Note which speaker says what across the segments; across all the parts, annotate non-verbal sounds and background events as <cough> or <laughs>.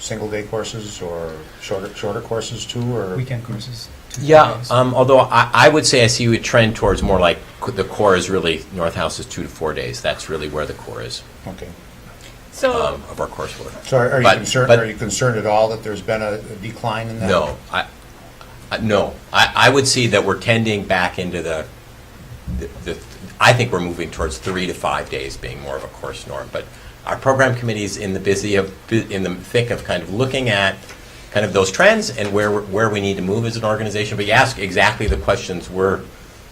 Speaker 1: single-day courses or shorter, shorter courses too, or?
Speaker 2: Weekend courses. Tuesday
Speaker 3: Yeah,
Speaker 2: days.
Speaker 3: um, although I, I would say I see a trend towards more like, c- the core is really, North House is two to four days. That's really where the core is
Speaker 1: Okay.
Speaker 4: So,
Speaker 3: um, of our coursework.
Speaker 1: So are are you
Speaker 3: But-
Speaker 1: concerned,
Speaker 3: but-
Speaker 1: are you concerned at all that there's been a a decline in that?
Speaker 3: No, I, I- no, I, I would see that we're tending back into the, the- the, I think we're moving towards three to five days being more of a course norm, but our program committee's in the busy of, in the thick of kind of looking at kind of those trends and where, we're- where we need to move as an organization, but you ask exactly the questions we're,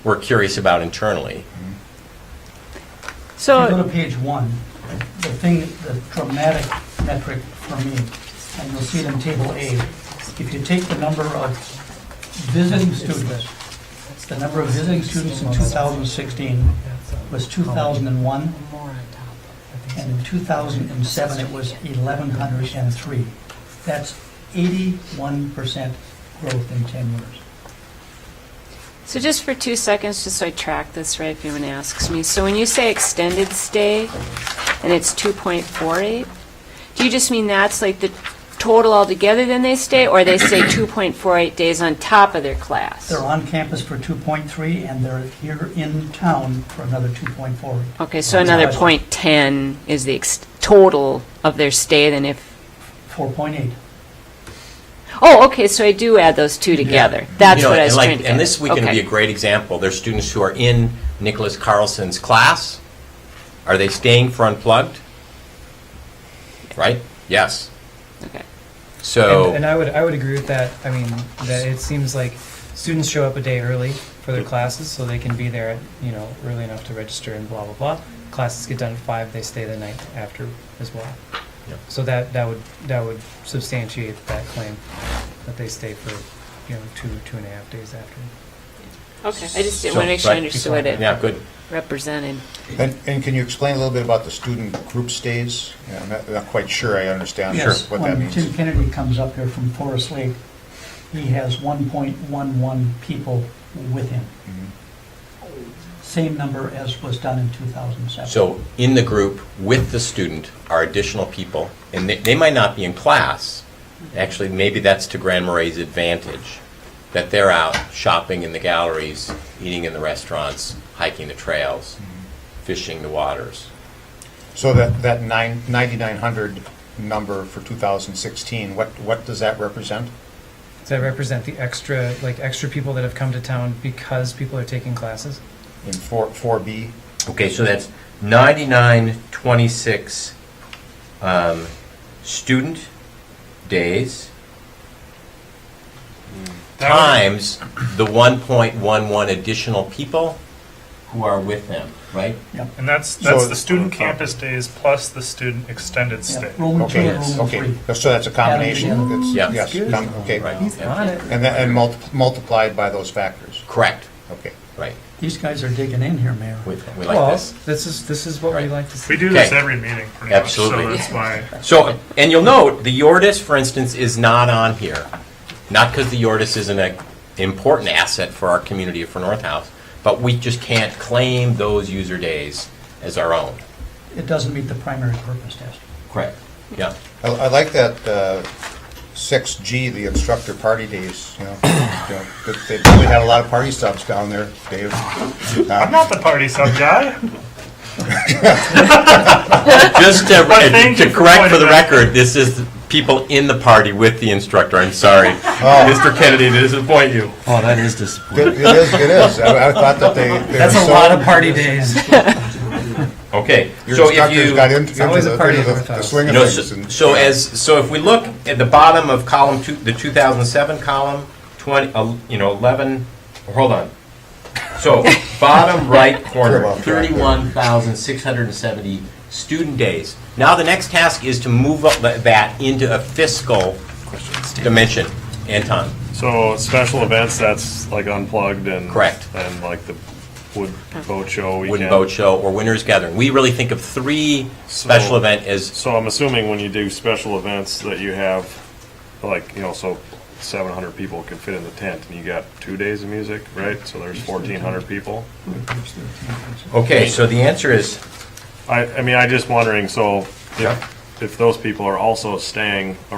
Speaker 3: we're curious about internally.
Speaker 5: If you go
Speaker 4: so,
Speaker 5: to page one, the thing, the dramatic metric for me, and you'll see it in table A, if you take the number of visiting students, the number of visiting students in 2016 was 2,001, and in 2007, it was 1,103. That's 81% growth in 10 years.
Speaker 4: so just for two seconds, just so I track this right, if anyone asks me. So when you say extended stay, and it's 2.48, do you just mean that's like the total altogether then they stay, or they stay 2.48 days on top of their class?
Speaker 5: They're on campus for 2.3, and they're here in town for another 2.4.
Speaker 4: Okay, so another point ten is the ex- total of their stay then if,
Speaker 5: 4.8.
Speaker 4: oh, okay, so I do add those two together. That's
Speaker 3: You know,
Speaker 4: what I
Speaker 3: and
Speaker 4: was
Speaker 3: like-
Speaker 4: trying to get.
Speaker 3: And this weekend would be a
Speaker 4: Okay.
Speaker 3: great example. There's students who are in Nicholas Carlson's class. Are they staying for Unplugged? Right? Yes.
Speaker 4: Okay.
Speaker 3: So.
Speaker 2: And, and I would, I would agree with that. I mean, that it seems like students show up a day early for their classes, so they can be there, you know, early enough to register and blah, blah, blah. Classes get done at five, they stay the night after as well.
Speaker 3: Yep.
Speaker 2: So that, that would, that would substantiate that claim, that they stay for, you know, two, two and a half days after.
Speaker 4: Okay, I just didn't
Speaker 3: so-
Speaker 4: want to make sure I
Speaker 3: right.
Speaker 4: understood what it
Speaker 3: Yeah, good.
Speaker 4: represented.
Speaker 1: And, and can you explain a little bit about the student group stays? Yeah, I'm not, not quite sure I understand
Speaker 3: Yes.
Speaker 1: what that
Speaker 5: When Tim
Speaker 1: means.
Speaker 5: Kennedy comes up here from Forest Lake, he has 1.11 people with him.
Speaker 1: Mhm. Mm-hmm.
Speaker 5: Same number as was done in 2007.
Speaker 3: So in the group with the student are additional people, and they, they might not be in class. Actually, maybe that's to Grand Marais' advantage, that they're out shopping in the galleries, eating in the restaurants, hiking the trails,
Speaker 2: Mm-hmm.
Speaker 3: fishing the waters.
Speaker 1: So that, that nine, 9,900 number for 2016, what, what does that represent?
Speaker 2: Does that represent the extra, like, extra people that have come to town because people are taking classes?
Speaker 1: In 4, 4B?
Speaker 3: Okay, so that's 9926 um, student days times the 1.11 additional people who are with them, right?
Speaker 6: And that's,
Speaker 1: So
Speaker 6: that's the
Speaker 1: it's-
Speaker 6: student campus days plus the student extended
Speaker 5: Yeah,
Speaker 6: stay.
Speaker 5: Roman two
Speaker 1: Okay,
Speaker 5: and Roman
Speaker 1: okay,
Speaker 5: three.
Speaker 1: so that's a combination, it's,
Speaker 3: Yeah.
Speaker 1: yes, com- okay.
Speaker 3: Right.
Speaker 1: And
Speaker 3: yeah.
Speaker 2: it.
Speaker 1: then, and multi- multiplied by those factors,
Speaker 3: Correct,
Speaker 1: okay.
Speaker 3: right.
Speaker 5: These guys are digging in here, Mayor.
Speaker 3: We we
Speaker 2: well,
Speaker 3: like this.
Speaker 2: is this is what we
Speaker 3: Right.
Speaker 2: like to see.
Speaker 6: We do this
Speaker 3: Okay.
Speaker 6: every meeting, pretty much, so
Speaker 3: Absolutely.
Speaker 6: that's why.
Speaker 3: So, and you'll note, the Yordis, for instance, is not on here. Not because the Yordis isn't an important asset for our community, for North House, but we just can't claim those user days as our own.
Speaker 5: It doesn't meet the primary purpose test.
Speaker 3: Correct.
Speaker 6: <laughs>
Speaker 3: Yeah.
Speaker 1: I, I like that, uh, 6G, the instructor party days, you know, you know, that they really had a lot of party subs down there, Dave.
Speaker 6: I'm not the party sub guy.
Speaker 3: Just to,
Speaker 6: But thank
Speaker 3: to
Speaker 6: you for
Speaker 3: correct for
Speaker 6: pointing
Speaker 3: the
Speaker 6: that out.
Speaker 3: record, this is people in the party with the instructor. I'm sorry,
Speaker 6: Oh.
Speaker 3: Mr. Kennedy, to disappoint you.
Speaker 7: Oh, that is disappointing.
Speaker 1: It it is, it is, I I thought that they. they
Speaker 2: That's
Speaker 1: were
Speaker 2: a
Speaker 1: so-
Speaker 2: lot of
Speaker 1: <laughs>
Speaker 2: party days.
Speaker 3: Okay,
Speaker 1: Your
Speaker 3: so if
Speaker 1: instructors
Speaker 3: you.
Speaker 1: got into, into
Speaker 2: always a
Speaker 1: the,
Speaker 2: party
Speaker 1: into the-
Speaker 2: at
Speaker 1: the
Speaker 2: North
Speaker 1: swing
Speaker 3: You
Speaker 1: of
Speaker 3: know,
Speaker 1: things.
Speaker 3: so,
Speaker 1: and-
Speaker 3: so as, so if we look at the bottom of column two, the 2007 column, 20, uh, you know, 11, hold on.
Speaker 1: <laughs>
Speaker 3: So, bottom right
Speaker 1: You're
Speaker 3: corner,
Speaker 1: off track there.
Speaker 3: 31,670 student days. Now, the next task is to move up tha- that into a fiscal dimension. Anton,
Speaker 8: So special events, that's like unplugged and.
Speaker 3: Correct.
Speaker 8: And like the wood boat show weekend.
Speaker 3: Wooden Boat Show, or Winners Gathering. We really think of three special
Speaker 8: So-
Speaker 3: event as,
Speaker 8: So I'm assuming when you do special events that you have, like, you know, so seven hundred people can fit in the tent and you got two days of music, right? So there's fourteen hundred people.
Speaker 3: okay, so the answer is,
Speaker 8: I, I mean, I just wondering, so
Speaker 3: Yeah.
Speaker 8: if, if those people are also staying